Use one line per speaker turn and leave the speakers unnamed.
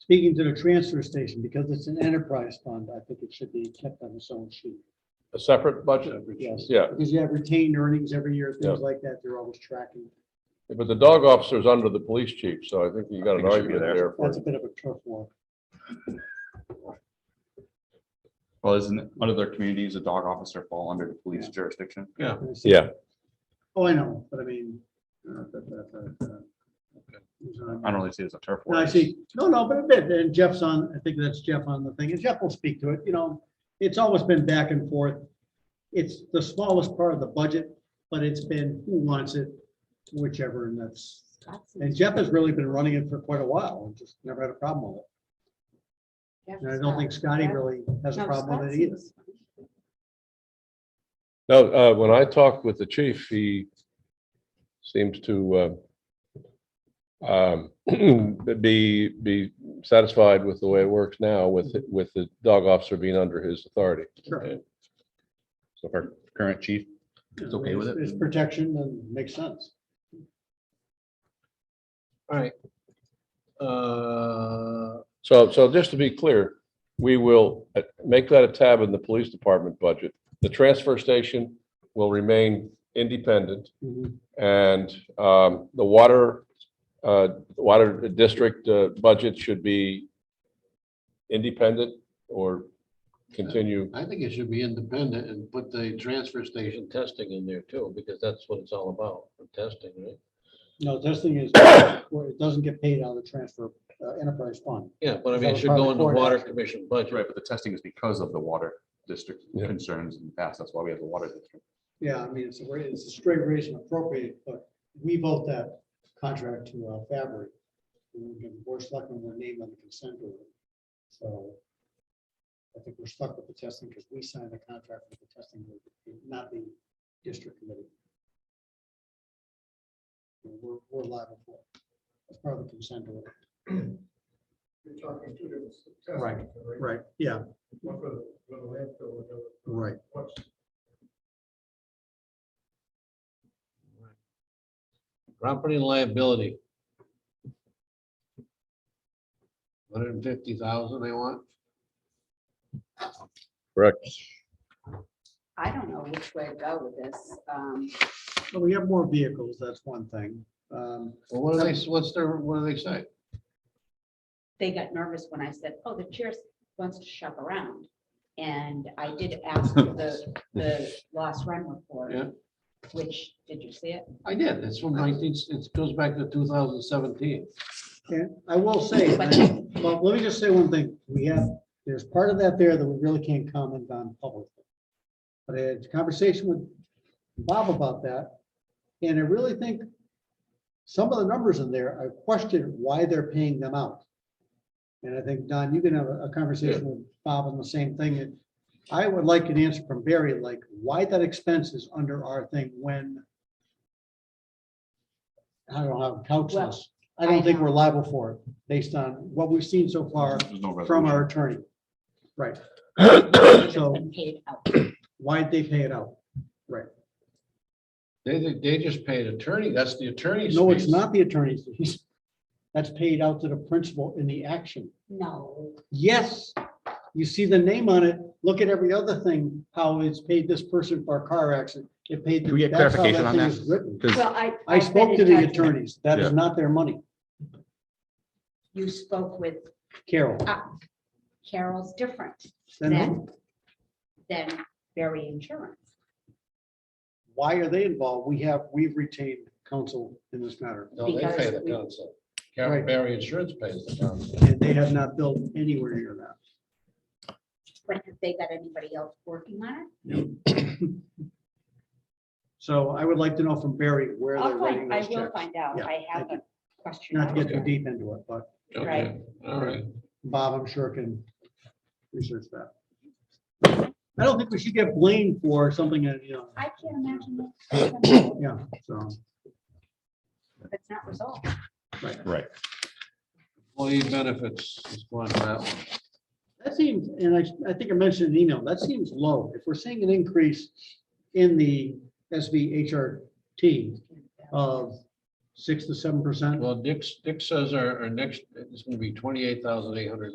speaking to the transfer station, because it's an enterprise fund, I think it should be kept on its own sheet.
A separate budget?
Yes.
Yeah,
Because you have retained earnings every year,
Yeah.
things like that, they're always tracking.
but the dog officer's under the police chief, so I think you got
I
an
think it should be
argument
there.
there. for
That's a bit of a turf war.
Well, isn't, under their communities, a dog officer fall under the police
Yeah.
jurisdiction?
Yeah.
Oh, I know, but I mean. uh, but- but- but, uh, it's not-
I don't really see it as a turf war.
No, I see, no, no, but a bit, and Jeff's on, I think that's Jeff on the thing, and Jeff will speak to it, you know, it's always been back and forth. It's the smallest part of the budget, but it's been who wants it, whichever, and that's, and Jeff has really been running it for quite a while, and just never had a problem with it. And I don't think Scotty really has a problem with it either.
No, uh, when I talked with the chief, he seems to uh, um, be, be satisfied with the way it works now with, with the dog officer being under his authority.
Sure.
So our current chief, It's okay with it.
It's protection and makes sense.
All right. Uh,
So, so just to be clear, we will uh, make that a tab in the police department budget. The transfer station will remain independent
Mm-hmm.
and um, the water, uh, water district uh, budget should be independent or continue.
I think it should be independent and put the transfer station testing in there too, because that's what it's all about, for testing, right?
No, testing is, where it doesn't get paid out of the transfer uh, enterprise fund.
Yeah, but I mean,
That
it
was
should
probably
go into
court
water
action.
commission budget.
right, but the testing is because of the water district
Yeah.
concerns in the past. That's why we have the water district.
Yeah, I mean, it's a, ra- it's a straight raise and appropriate, but we vote that contract to uh, Fabric. And we can- We're stuck on their name on the consent order. So I think we're stuck with the testing because we signed the contract with the testing, group, not the district committee. And We're, we're liable for it. That's part of the consent order.
You're talking two different. tests,
Right, Right, yeah,
One for the, for the landfill, one for the.
right.
what's-
Property and liability. Hundred and fifty thousand they want.
I don't know which way to go with this. Um,
So we have more vehicles, that's one thing. Um,
Well, what do they, what's their, what do they say?
They got nervous when I said, oh, the chair wants to shop around. And I did ask for the, the lost run report.
Yeah.
Which, did you see it?
I did, it's from nineteen, it goes back to two thousand seventeen.
And I will say, uh, well, let me just say one thing. We have, there's part of that there that we really can't comment on publicly. But I had a conversation with Bob about that, and I really think some of the numbers in there, I question why they're paying them out. And I think, Don, you can have a a conversation with Bob on the same thing. And I would like an answer from Barry, like why that expense is under our thing when I don't know, how to couch this. I don't think we're liable for it based on what we've seen so far
There's no
from
resolution.
our attorney. Right,
It's
So-
been paid out.
why'd they pay it out?
They, they just paid attorney, that's the attorney's.
No, it's
fees.
not the attorney's fees. That's paid out to the principal in the action.
No,
Yes, you see the name on it. Look at every other thing, how it's paid this person for a car accident. It paid.
Can we get
that's how that
clarification on
thing
that?
is written.
well, I.
I
I've been
spoke to
in
the
touch with-
attorneys. That is not their money.
You spoke with uh,
Carol,
Carol's different
then who-
than, than Berry Insurance.
why are they involved? We have, we've retained counsel in this matter.
No, they pay
because
the
we-
council.
Right.
Carol Barry Insurance pays the council.
And they have not billed anywhere near that.
But have they got anybody else working on it?
So I would like to know from Barry where they're
I'll
writing
find, I
those
will
checks.
find out.
Yeah,
I have
thank
a question.
Not to
on
get too
that.
deep into it, but
Okay,
Right.
All right.
Bob, I'm sure can research that. I don't think we should get blamed for something that, you know,
I can't imagine that
yeah, so,
that's not resolved.
right.
Employee benefits is going to that one.
That seems, and I, I think I mentioned in the email, that seems low. If we're seeing an increase in the SVHRT of six to seven percent?
Well, Dick's, Dick says our, our next, it's gonna be twenty-eight thousand eight hundred